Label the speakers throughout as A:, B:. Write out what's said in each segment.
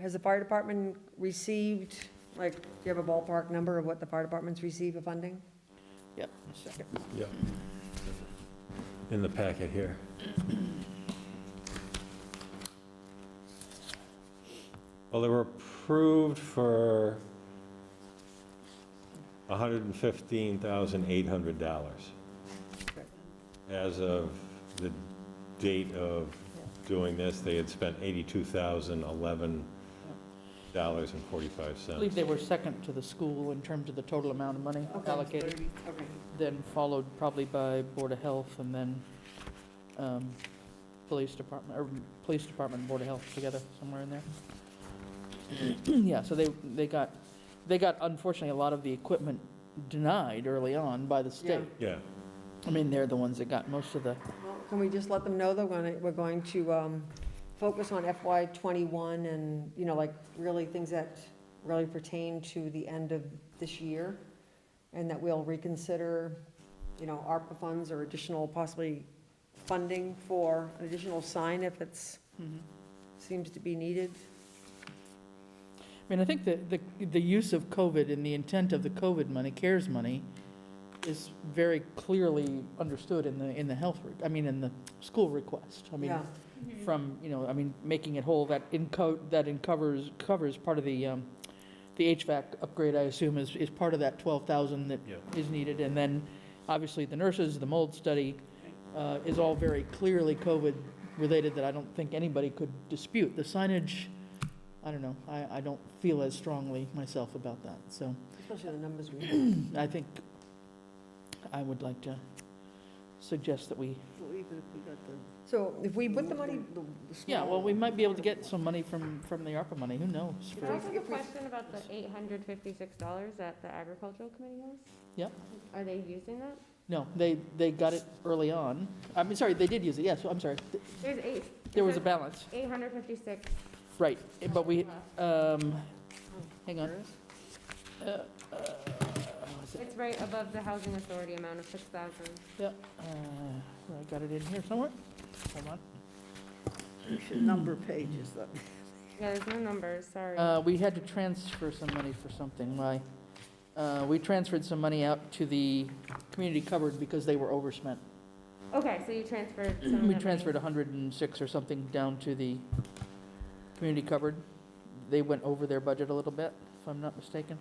A: has the fire department received, like, do you have a ballpark number of what the fire departments receive of funding?
B: Yep.
C: Yeah. In the packet here. Well, they were approved for $115,800 as of the date of doing this. They had spent $82,011.45.
B: I believe they were second to the school in terms of the total amount of money allocated,
A: Okay.
B: then followed probably by Board of Health and then um, Police Department, or Police Department and Board of Health together, somewhere in there. Yeah, so they, they got, they got unfortunately a lot of the equipment denied early on by the state.
C: Yeah,
B: I mean, they're the ones that got most of the,
A: Well, Can we just let them know that we're gonna- we're going to um, focus on FY '21 and, you know, like, really things that really pertain to the end of this year? And that we'll reconsider, you know, ARPA funds or additional possibly funding for an additional sign if it's,
B: Mhm.
A: seems to be needed?
B: I mean, I think the, the, the use of COVID and the intent of the COVID money, CARES money, is very clearly understood in the, in the health, re- I mean, in the school request. I mean,
A: Yeah,
B: from, you know, I mean, making it whole, that enco, that encovers, covers part of the, um, the HVAC upgrade, I assume, is, is part of that 12,000 that
C: Yeah.
B: is needed. And then, obviously, the nurses, the mold study uh, is all very clearly COVID-related that I don't think anybody could dispute. The signage, I don't know, I, I don't feel as strongly myself about that. So
A: especially the numbers we have.
B: I think I would like to suggest that we,
A: So if we put the money,
B: yeah, well, we might be able to get some money from, from the ARPA money, who knows?
A: If
D: Can I
A: we-
D: ask a
A: if we-
D: question about the eight hundred fifty-six dollars that the agricultural committee has?
B: Yep.
D: Are they using that?
B: No, they, they got it early on. I mean, sorry, they did use it, yes, I'm sorry. Th-
D: There's eight.
B: There was a balance,
D: Eight hundred fifty-six.
B: right, but we, um, hang on. Uh, uh, what is it?
D: It's right above the housing authority amount of six thousand.
B: Yep, uh, I got it in here somewhere. Hold on.
E: number pages, though.
D: Yeah, there's no numbers, sorry.
B: Uh, we had to transfer some money for something, why? Uh, we transferred some money out to the community cupboard because they were overspent.
D: Okay, so you transferred some of
B: We
D: that
B: transferred
D: money.
B: 106 or something down to the community cupboard. They went over their budget a little bit, if I'm not mistaken.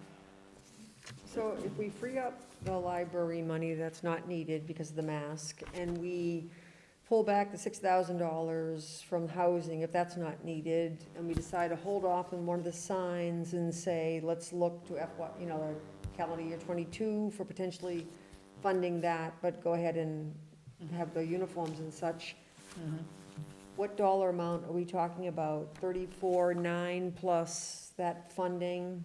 A: so if we free up the library money that's not needed because of the mask, and we pull back the six thousand dollars from housing if that's not needed, and we decide to hold off on one of the signs and say, let's look to FY, you know, calendar year twenty-two for potentially funding that, but go ahead and have the uniforms and such,
B: Mhm.
A: what dollar amount are we talking about? Thirty-four, nine plus that funding?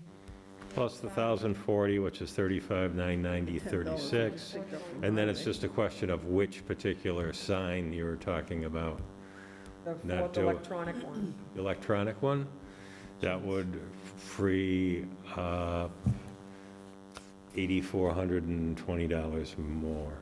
C: plus the 1,040, which is 35,990, 36. And then it's just a question of which particular sign you were talking about.
A: The
C: Not
A: fourth
C: do it.
A: electronic one.
C: The Electronic one, that would free uh, $8,420 more.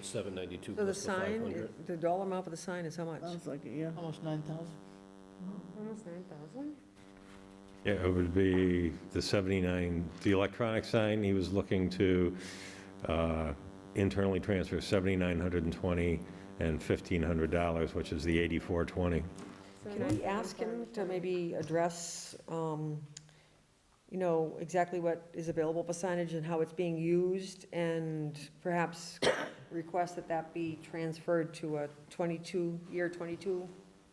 F: Seven ninety-two
A: So the
F: plus the five
A: sign,
F: hundred.
A: the dollar amount for the sign is how much?
B: Um,
E: Sounds like, it, yeah.
B: Almost 9,000.
D: Almost nine thousand?
C: Yeah, it would be the 79, the electronic sign, he was looking to uh, internally transfer 7,920 and $1,500, which is the 8,420.
A: Can we ask him to maybe address, um, you know, exactly what is available for signage and how it's being used? And perhaps request that that be transferred to a 22, year 22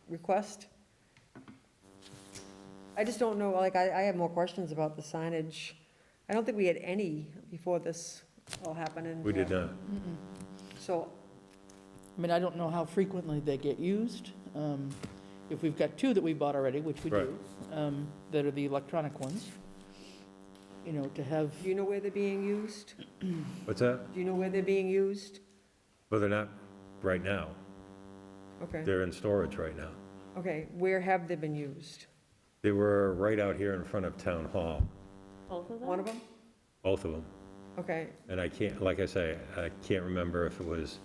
A: request? I just don't know, like, I, I have more questions about the signage. I don't think we had any before this all happened. and-
C: We did not.
B: Mm-mm.
A: So
B: I mean, I don't know how frequently they get used. Um, If we've got two that we bought already, which we do, um, that are the electronic ones, you know, to have,
A: do you know where they're being used?
C: What's that?
A: Do you know where they're being used?
C: Well, they're not right now.
A: Okay,
C: They're in storage right now.
A: okay, where have they been used?
C: They were right out here in front of Town Hall,
D: Both of them?
A: One of them?
C: both of them.
A: Okay,
C: And I can't, like I say, I can't remember if it was